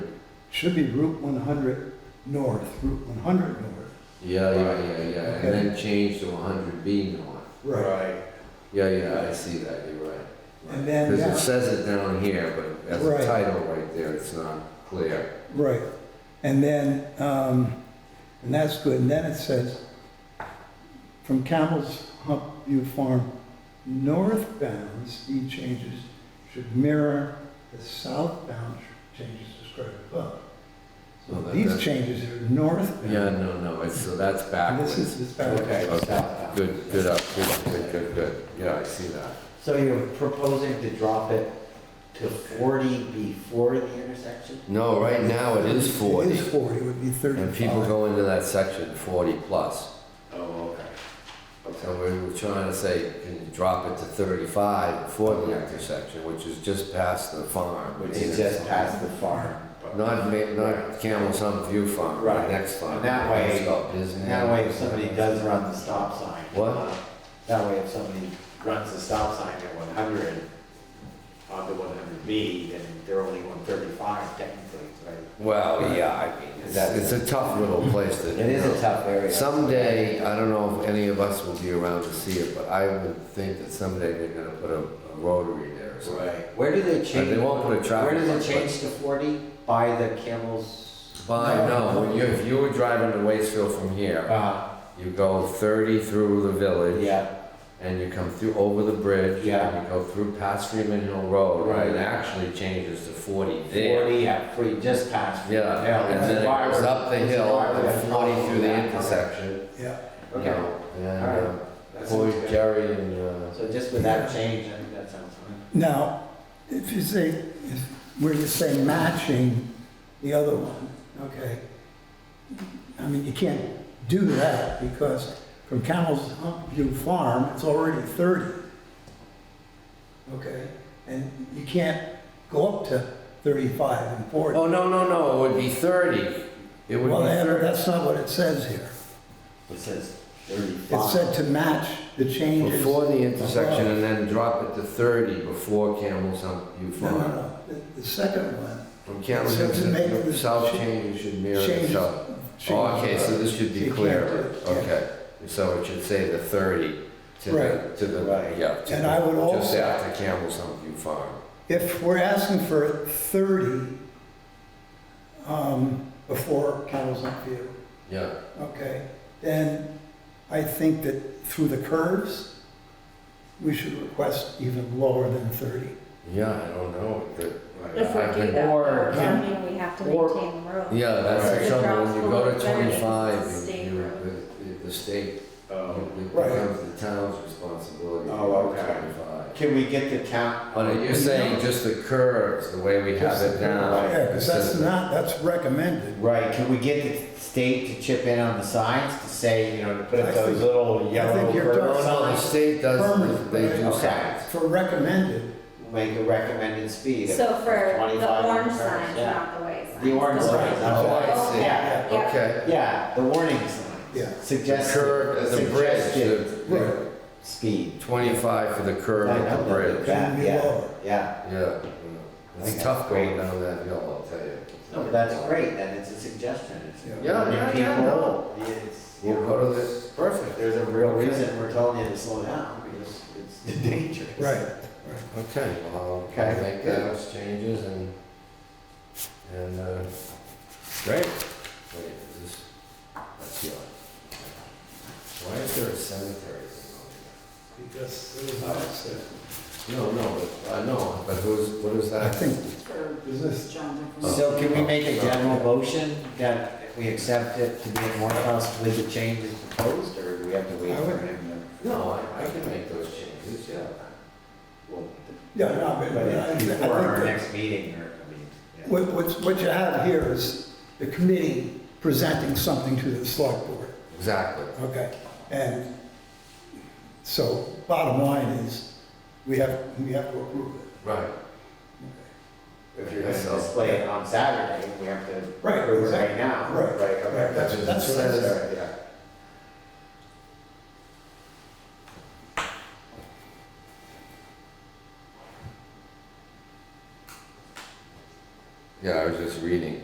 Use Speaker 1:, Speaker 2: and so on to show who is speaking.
Speaker 1: should be Route one hundred north, Route one hundred north.
Speaker 2: Yeah, yeah, yeah, yeah,
Speaker 1: Okay.
Speaker 2: and then change to hundred B north.
Speaker 3: Right.
Speaker 2: Yeah, yeah, I see that, you're right.
Speaker 1: And then,
Speaker 2: Because it
Speaker 1: yeah,
Speaker 2: says it down here, but as
Speaker 1: Right.
Speaker 2: a title right there, it's not clear.
Speaker 1: right, and then, um, and that's good, and then it says, from Campbell's Hump View Farm northbound speed changes should mirror the southbound changes described above. So
Speaker 2: Well, Oh, that-
Speaker 1: these
Speaker 2: that's-
Speaker 1: changes are northbound.
Speaker 2: Yeah, no, no, it's, so that's
Speaker 1: And This
Speaker 2: backwards.
Speaker 1: is, this backwards.
Speaker 3: Okay.
Speaker 2: Okay.
Speaker 3: southbound.
Speaker 2: Good, good, up, good, good, good, good, yeah, I see that.
Speaker 3: So you're proposing to drop it to forty before the intersection?
Speaker 2: No, right now it is
Speaker 1: It
Speaker 2: forty,
Speaker 1: is forty, it would be thirty-five.
Speaker 2: and people go into that section forty plus.
Speaker 3: Oh, okay.
Speaker 2: And we were trying to say, can you drop it to thirty-five before the intersection, which is just past the farm.
Speaker 3: Which is just past the farm. but-
Speaker 2: Not, ma- not Camel's Hump View Farm, the
Speaker 3: Right.
Speaker 2: next farm.
Speaker 3: And that way-
Speaker 2: It's got Disney.
Speaker 3: And that way, if somebody does run the stop sign.
Speaker 2: What?
Speaker 3: That way, if somebody runs the stop sign at one hundred, onto one hundred B, then they're only one thirty-five technically, right?
Speaker 2: Well, yeah, I mean, it's, it's a tough little place to.
Speaker 3: It is
Speaker 2: you know.
Speaker 3: a tough area.
Speaker 2: Someday, I don't know if any of us will be around to see it, but I would think that someday they're gonna put a a rotary there or something.
Speaker 3: Right. Where do they
Speaker 2: And
Speaker 3: change?
Speaker 2: they won't put a traffic.
Speaker 3: Where does
Speaker 2: light,
Speaker 3: it change to forty? By the camels?
Speaker 2: but- By, no, when you, if you were driving to Waitsfield from here,
Speaker 3: Uh,
Speaker 2: you go thirty through the village.
Speaker 3: yeah,
Speaker 2: And you come through over the bridge.
Speaker 3: Yeah.
Speaker 2: And you go through past Freeman Hill Road. And it
Speaker 3: Right.
Speaker 2: actually changes to forty there.
Speaker 3: forty, yeah, free, just past. Free
Speaker 2: Yeah,
Speaker 3: Hill.
Speaker 2: and then it
Speaker 3: Why
Speaker 2: goes
Speaker 3: would-
Speaker 2: up the hill,
Speaker 3: why would
Speaker 2: and
Speaker 3: I
Speaker 2: forty
Speaker 3: follow
Speaker 2: through the
Speaker 3: that?
Speaker 2: intersection.
Speaker 1: Yeah,
Speaker 2: you
Speaker 3: Okay.
Speaker 2: know, And,
Speaker 3: All
Speaker 2: uh,
Speaker 3: right. That
Speaker 2: boy,
Speaker 3: sounds good.
Speaker 2: Jerry and, uh,
Speaker 3: So just with that change, I think that sounds fine.
Speaker 1: Now, if you say, if- where you say matching the other one, okay? I mean, you can't do that because from Camel's Hump View Farm, it's already 30. Okay? And you can't go up to 35 and 40.
Speaker 2: oh, no, no, no, it would be thirty. It would
Speaker 1: Well,
Speaker 2: be
Speaker 1: that-
Speaker 2: thirty.
Speaker 1: that's not what it says here.
Speaker 3: It says
Speaker 1: It said
Speaker 3: thirty-five.
Speaker 1: to match the changes.
Speaker 2: Before the intersection
Speaker 1: above.
Speaker 2: and then drop it to thirty before Camel's Hump View
Speaker 1: No, no,
Speaker 2: Farm.
Speaker 1: no. The- The second one
Speaker 2: From Camel's
Speaker 1: So
Speaker 2: Hump,
Speaker 1: to make
Speaker 2: to
Speaker 1: the
Speaker 2: south
Speaker 1: cha-
Speaker 2: change should mirror the
Speaker 1: changes.
Speaker 2: south. Oh, okay, so this should
Speaker 1: You
Speaker 2: be
Speaker 1: can't
Speaker 2: clear,
Speaker 1: do it, yeah.
Speaker 2: okay. So it should say the thirty to the,
Speaker 1: Right.
Speaker 2: to the,
Speaker 3: Right.
Speaker 2: yeah. to
Speaker 1: And
Speaker 2: the-
Speaker 1: I would
Speaker 2: Just
Speaker 1: also-
Speaker 2: after Camel's Hump View Farm.
Speaker 1: If we're asking for 30 um, before Campbell's Hump View,
Speaker 2: Yeah.
Speaker 1: okay, then I think that through the curves, we should request even lower than 30.
Speaker 2: Yeah, I don't know. The-
Speaker 4: If
Speaker 2: I've
Speaker 4: we do
Speaker 2: been-
Speaker 4: that,
Speaker 3: Or-
Speaker 4: though, does that mean we have to
Speaker 3: or-
Speaker 4: maintain the road?
Speaker 2: Yeah,
Speaker 4: So
Speaker 2: that's the
Speaker 4: the
Speaker 2: trouble. When you go to
Speaker 4: crosswalk variance is
Speaker 2: twenty-five,
Speaker 4: state
Speaker 2: you-
Speaker 4: road.
Speaker 2: you- the, the state,
Speaker 3: Um,
Speaker 2: it
Speaker 1: Right.
Speaker 2: becomes the town's responsibility. to
Speaker 3: Oh,
Speaker 2: go to
Speaker 3: okay.
Speaker 2: 25.
Speaker 3: Can we get the town?
Speaker 2: But you're saying just the curves, the way we have
Speaker 1: Just
Speaker 2: it
Speaker 1: the
Speaker 2: now.
Speaker 1: Yeah, because that's
Speaker 2: instead of-
Speaker 1: not, that's recommended.
Speaker 3: Right, can we get the state to chip in on the signs to say, you know, to put
Speaker 1: I
Speaker 3: up those
Speaker 1: think-
Speaker 3: little yellow
Speaker 1: think you're
Speaker 3: curb
Speaker 1: done.
Speaker 2: No, the
Speaker 3: signs?
Speaker 2: state does,
Speaker 1: Permanent,
Speaker 2: they do
Speaker 3: right?
Speaker 2: signs.
Speaker 1: For recommended,
Speaker 3: Make a recommended speed of
Speaker 4: So for the
Speaker 3: 25
Speaker 4: orange
Speaker 3: curves,
Speaker 4: signs,
Speaker 3: yeah.
Speaker 4: not the way signs.
Speaker 3: The orange
Speaker 1: Right.
Speaker 3: signs.
Speaker 2: Oh, I
Speaker 3: okay.
Speaker 2: see.
Speaker 3: Yeah,
Speaker 4: Yeah.
Speaker 2: Okay.
Speaker 3: yeah, the warning signs.
Speaker 1: Yeah.
Speaker 2: The
Speaker 3: Suggest.
Speaker 2: curve, the bridge, the-
Speaker 1: Right.
Speaker 2: the
Speaker 3: Speed.
Speaker 2: twenty-five for the curve at
Speaker 3: I
Speaker 2: the
Speaker 3: know that.
Speaker 2: bridge. Yeah,
Speaker 3: Yeah,
Speaker 1: Shouldn't be
Speaker 3: yeah,
Speaker 1: lower.
Speaker 3: yeah.
Speaker 2: yeah. It's
Speaker 3: Okay.
Speaker 2: tough going down that hill, I'll tell you.
Speaker 3: No, but that's great, and it's a suggestion. It's-
Speaker 1: Yeah.
Speaker 2: Yeah,
Speaker 3: I mean,
Speaker 2: yeah, yeah, no.
Speaker 3: people, it's, you
Speaker 2: We'll
Speaker 3: know,
Speaker 2: go to this, perfect.
Speaker 3: there's a real reason we're telling you to slow down, because it's dangerous.
Speaker 1: right.
Speaker 2: Okay, well, I'll
Speaker 3: Okay.
Speaker 2: make those changes and, and, uh, great. Wait, is this, that's yours. Why is there a cemetery?
Speaker 1: Because it was outside.
Speaker 2: No, no, but, I know, but who's, what is
Speaker 1: I
Speaker 2: that?
Speaker 1: think,
Speaker 4: For
Speaker 1: is this
Speaker 4: John Dickerson.
Speaker 3: So can we make a general motion that we accept it to be in Morehouse with the changes proposed, or do we have to wait
Speaker 1: I would-
Speaker 3: for him
Speaker 2: No, I, I can make those changes, yeah.
Speaker 3: to? well,
Speaker 1: yeah, no, but
Speaker 3: But
Speaker 1: I I
Speaker 3: it's
Speaker 1: think
Speaker 3: before our
Speaker 1: that
Speaker 3: next meeting, or, I mean, yeah.
Speaker 1: what, what's- what you have here is the committee presenting something to the select board.
Speaker 2: Exactly.
Speaker 1: Okay, and so bottom line is, we have, we have to approve it.
Speaker 2: Right.
Speaker 3: If you're gonna
Speaker 2: So-
Speaker 3: display it on Saturday, we have to
Speaker 1: Right,
Speaker 3: approve it right
Speaker 1: exactly.
Speaker 3: now,
Speaker 1: Right,
Speaker 3: right?
Speaker 1: right,
Speaker 3: okay.
Speaker 1: that's-
Speaker 2: that's what I said.
Speaker 3: Yeah.
Speaker 2: Yeah, I was just reading.